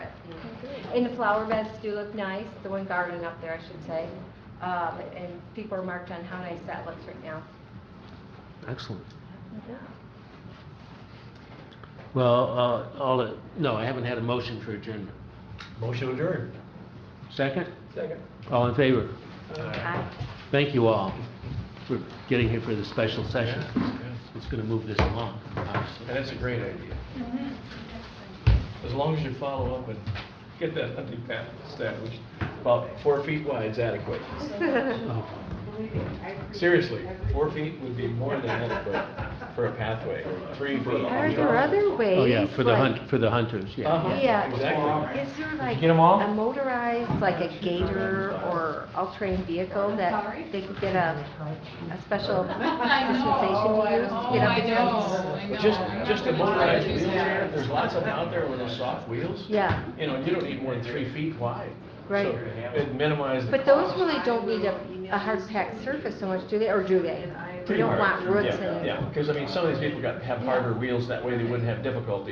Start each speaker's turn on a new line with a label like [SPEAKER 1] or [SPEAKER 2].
[SPEAKER 1] And the flower beds do look nice, the one garden up there, I should say. Um, And people are marked on how nice that looks right now.
[SPEAKER 2] Excellent. Well, uh, all, it- no, I haven't had a motion for adjournment.
[SPEAKER 3] Motion adjourned.
[SPEAKER 2] Second?
[SPEAKER 3] Second.
[SPEAKER 2] All in favor?
[SPEAKER 1] Aye.
[SPEAKER 2] Thank you all for getting here for the special session.
[SPEAKER 3] Yeah.
[SPEAKER 2] It's going to move this along, obviously.
[SPEAKER 3] And that's a great idea. As long as you follow up and get that hunting path established, about four feet wide is adequate.
[SPEAKER 2] Oh,
[SPEAKER 3] Seriously, four feet would be more than adequate for a pathway, three for a
[SPEAKER 1] Are
[SPEAKER 3] hunting
[SPEAKER 1] there
[SPEAKER 3] path.
[SPEAKER 1] other ways?
[SPEAKER 2] Oh, yeah, for the
[SPEAKER 1] like-
[SPEAKER 2] hunt, for the hunters, yeah.
[SPEAKER 3] Uh-huh,
[SPEAKER 1] Yeah.
[SPEAKER 3] Exactly.
[SPEAKER 1] Is there like
[SPEAKER 3] get 'em all?
[SPEAKER 1] a motorized, like a gator or all-terrain vehicle that they could get a, a special dispensation to use to get up and down?
[SPEAKER 3] But Just, just a motorized wheelchair, there's lots of them out there with those soft wheels.
[SPEAKER 1] Yeah,
[SPEAKER 3] You know, you don't need more than three feet wide.
[SPEAKER 1] Right.
[SPEAKER 3] So It minimizes the
[SPEAKER 1] but those
[SPEAKER 3] cost.
[SPEAKER 1] really don't need a, a hard-packed surface so much, do they, or do they? We don't want
[SPEAKER 3] Pretty hard.
[SPEAKER 1] roots
[SPEAKER 3] Yeah,
[SPEAKER 1] and.
[SPEAKER 3] Yeah, because I mean, some of these people got, have harder wheels, that way they wouldn't have difficulty